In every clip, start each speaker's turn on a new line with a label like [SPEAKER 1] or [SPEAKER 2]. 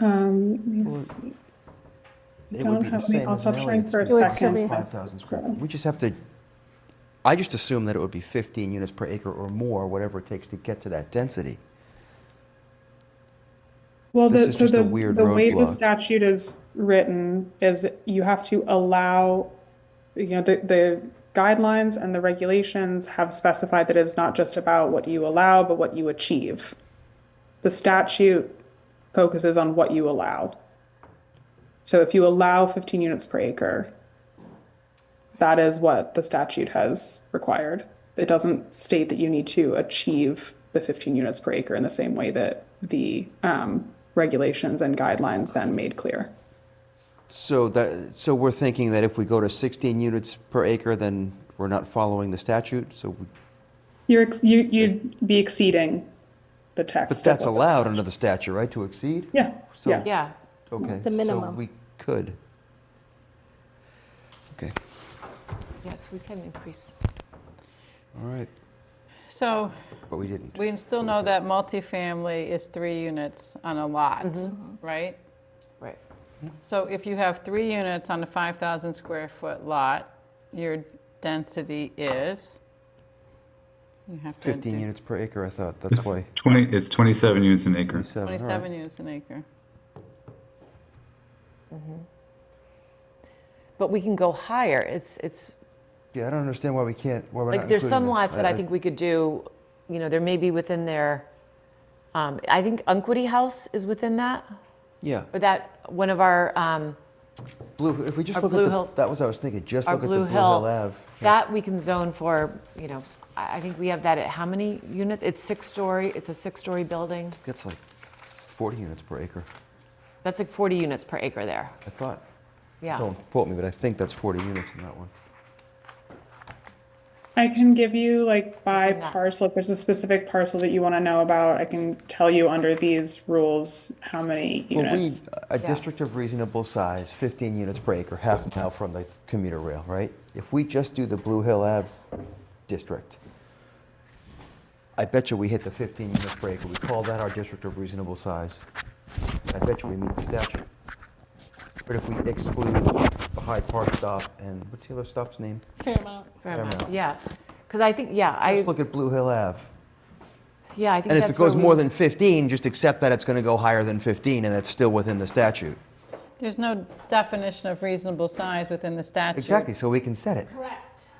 [SPEAKER 1] Um, let me
[SPEAKER 2] Well,
[SPEAKER 1] see.
[SPEAKER 2] It would
[SPEAKER 1] Don't
[SPEAKER 2] be the
[SPEAKER 1] have me
[SPEAKER 2] same as
[SPEAKER 1] also
[SPEAKER 2] Nellie.
[SPEAKER 1] trying for a
[SPEAKER 3] It would still
[SPEAKER 1] second.
[SPEAKER 3] be-
[SPEAKER 2] 5,000 square.
[SPEAKER 1] So-
[SPEAKER 2] feet. We just have to, I just assume that it would be 15 units per acre or more, whatever it takes to get to that density.
[SPEAKER 1] Well,
[SPEAKER 2] This
[SPEAKER 1] the,
[SPEAKER 2] is
[SPEAKER 1] so
[SPEAKER 2] just a
[SPEAKER 1] the,
[SPEAKER 2] weird
[SPEAKER 1] the way the
[SPEAKER 2] roadblock.
[SPEAKER 1] statute is written is you have to allow, you know, the, the guidelines and the regulations have specified that it's not just about what you allow, but what you achieve. The statute focuses on what you allow. So if you allow 15 units per acre, that is what the statute has required. It doesn't state that you need to achieve the 15 units per acre in the same way that the um, regulations and guidelines then made clear.
[SPEAKER 2] So that, so we're thinking that if we go to 16 units per acre, then we're not following the statute, so, we-
[SPEAKER 1] You're ex- you you'd be exceeding the text.
[SPEAKER 2] but
[SPEAKER 1] of
[SPEAKER 2] that's
[SPEAKER 1] what-
[SPEAKER 2] allowed under the statute, right, to exceed?
[SPEAKER 1] Yeah.
[SPEAKER 2] So-
[SPEAKER 1] yeah.
[SPEAKER 3] Yeah.
[SPEAKER 2] Okay.
[SPEAKER 3] The
[SPEAKER 2] So
[SPEAKER 3] minimum.
[SPEAKER 2] we could. Okay,
[SPEAKER 3] Yes, we can increase.
[SPEAKER 2] all right,
[SPEAKER 4] So
[SPEAKER 2] but we didn't.
[SPEAKER 4] we still know that multifamily is three units on a lot, right?
[SPEAKER 3] Right.
[SPEAKER 4] So if you have three units on a 5,000 square foot lot, your density is? You have to
[SPEAKER 2] 15
[SPEAKER 4] do
[SPEAKER 2] units per acre, I thought, that's why.
[SPEAKER 5] 20, it's 27 units an acre.
[SPEAKER 2] 27, all right.
[SPEAKER 4] 27 units an acre.
[SPEAKER 3] But we can go higher. It's, it's,
[SPEAKER 2] Yeah, I don't understand why we can't, why we're not
[SPEAKER 3] like, there's
[SPEAKER 2] including
[SPEAKER 3] some
[SPEAKER 2] this.
[SPEAKER 3] lots that I think we could do, you know, there may be within their, um, I think Unquity House is within that,
[SPEAKER 2] Yeah.
[SPEAKER 3] or that, one of our, um,
[SPEAKER 2] Blue, if we just
[SPEAKER 3] Our
[SPEAKER 2] look
[SPEAKER 3] Blue
[SPEAKER 2] at the,
[SPEAKER 3] Hill-
[SPEAKER 2] that was what I was thinking, just
[SPEAKER 3] our
[SPEAKER 2] look at the
[SPEAKER 3] Blue
[SPEAKER 2] Blue Hill
[SPEAKER 3] Hill.
[SPEAKER 2] Ave.
[SPEAKER 3] That we can zone for, you know, I I think we have that at how many units? It's six-story, it's a six-story building.
[SPEAKER 2] That's like 40 units per acre,
[SPEAKER 3] That's like 40 units per acre there.
[SPEAKER 2] I thought.
[SPEAKER 3] Yeah.
[SPEAKER 2] Don't quote me, but I think that's 40 units in that one.
[SPEAKER 1] I can give you like by
[SPEAKER 3] that.
[SPEAKER 1] parcel, if there's a specific parcel that you want to know about, I can tell you under these rules how many
[SPEAKER 2] Well, we,
[SPEAKER 1] units.
[SPEAKER 2] a district of reasonable size, 15 units per acre, half a mile from the commuter rail, right? If we just do the Blue Hill Ave district, I bet you we hit the 15 units per acre. We call that our district of reasonable size. I bet you we meet the statute. But if we exclude the Hyde Park stop and, what's the other stop's name?
[SPEAKER 3] Fair amount. Yeah, because I think, yeah, I,
[SPEAKER 2] Just look at Blue Hill Ave.
[SPEAKER 3] yeah, I think
[SPEAKER 2] And
[SPEAKER 3] that's
[SPEAKER 2] if it goes
[SPEAKER 3] where
[SPEAKER 2] more
[SPEAKER 3] we-
[SPEAKER 2] than 15, just accept that it's going to go higher than 15, and that's still within the statute.
[SPEAKER 4] There's no definition of reasonable size within the statute.
[SPEAKER 2] Exactly, so we can set it.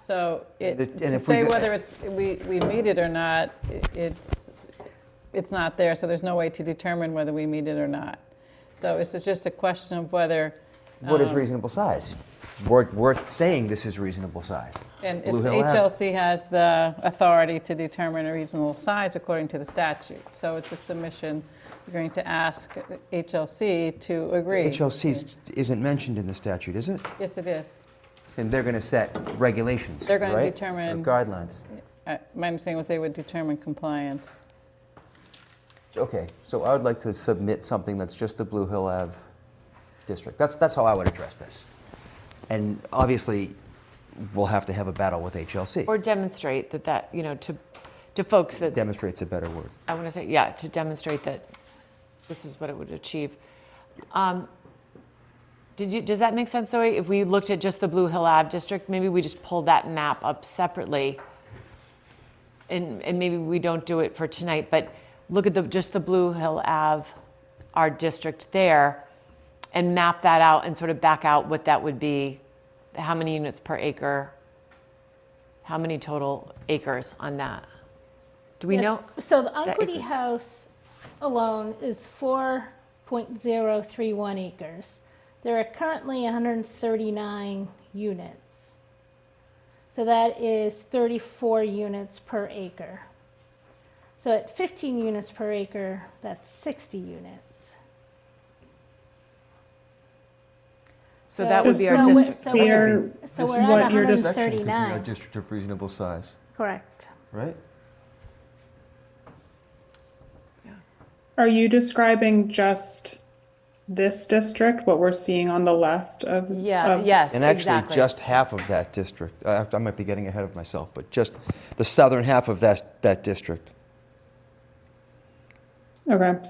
[SPEAKER 4] So
[SPEAKER 2] And it-
[SPEAKER 4] it,
[SPEAKER 2] and
[SPEAKER 4] to
[SPEAKER 2] if we
[SPEAKER 4] say
[SPEAKER 2] go-
[SPEAKER 4] whether it's, we, we meet it or not, i- it's, it's not there, so there's no way to determine whether we meet it or not. So it's just a question of whether,
[SPEAKER 2] What is reasonable size? We're, we're saying this is reasonable size.
[SPEAKER 4] and it's-
[SPEAKER 2] Blue Hill Ave.
[SPEAKER 4] HLC has the authority to determine a reasonable size according to the statute. So it's a submission, you're going to ask HLC to agree.
[SPEAKER 2] HLC is- isn't mentioned in the statute, is it?
[SPEAKER 4] Yes, it is.
[SPEAKER 2] And they're going to set regulations,
[SPEAKER 4] They're gonna
[SPEAKER 2] right?
[SPEAKER 4] determine-
[SPEAKER 2] Or guidelines.
[SPEAKER 4] Uh, My understanding was they would determine compliance.
[SPEAKER 2] Okay, so I would like to submit something that's just the Blue Hill Ave district. That's, that's how I would address this. And obviously, we'll have to have a battle with HLC.
[SPEAKER 3] Or demonstrate that that, you know, to, to folks that
[SPEAKER 2] Demonstrates a better word.
[SPEAKER 3] I want to say, yeah, to demonstrate that this is what it would achieve. Um, Did you, does that make sense, Zoe? If we looked at just the Blue Hill Ave district, maybe we just pull that map up separately. And, and maybe we don't do it for tonight, but look at the, just the Blue Hill Ave, our district there, and map that out and sort of back out what that would be, how many units per acre, how many total acres on that? Do we
[SPEAKER 6] Yes,
[SPEAKER 3] know?
[SPEAKER 6] So the Unquity
[SPEAKER 3] acres.
[SPEAKER 6] House alone is four point zero three one acres. There are currently hundred and thirty-nine units. So that is thirty-four units per acre. So at fifteen units per acre, that's sixty units.
[SPEAKER 3] So that would
[SPEAKER 1] So-
[SPEAKER 3] be our
[SPEAKER 1] so-
[SPEAKER 3] district.
[SPEAKER 6] So
[SPEAKER 1] Clear
[SPEAKER 6] we're, so
[SPEAKER 2] This
[SPEAKER 6] we're
[SPEAKER 2] is
[SPEAKER 1] what
[SPEAKER 2] just-
[SPEAKER 6] at
[SPEAKER 1] you're
[SPEAKER 6] hundred
[SPEAKER 1] dis-
[SPEAKER 6] and
[SPEAKER 2] section could be our
[SPEAKER 6] thirty-nine,
[SPEAKER 2] district of reasonable size,
[SPEAKER 6] correct.
[SPEAKER 2] right?
[SPEAKER 1] Are you describing just this district, what we're seeing on the left of?
[SPEAKER 3] Yeah,
[SPEAKER 1] of-
[SPEAKER 3] yes,
[SPEAKER 2] And actually,
[SPEAKER 3] exactly.
[SPEAKER 2] just half of that district. uh, I, I might be getting ahead of myself, but just the southern half of that that district.
[SPEAKER 1] Okay,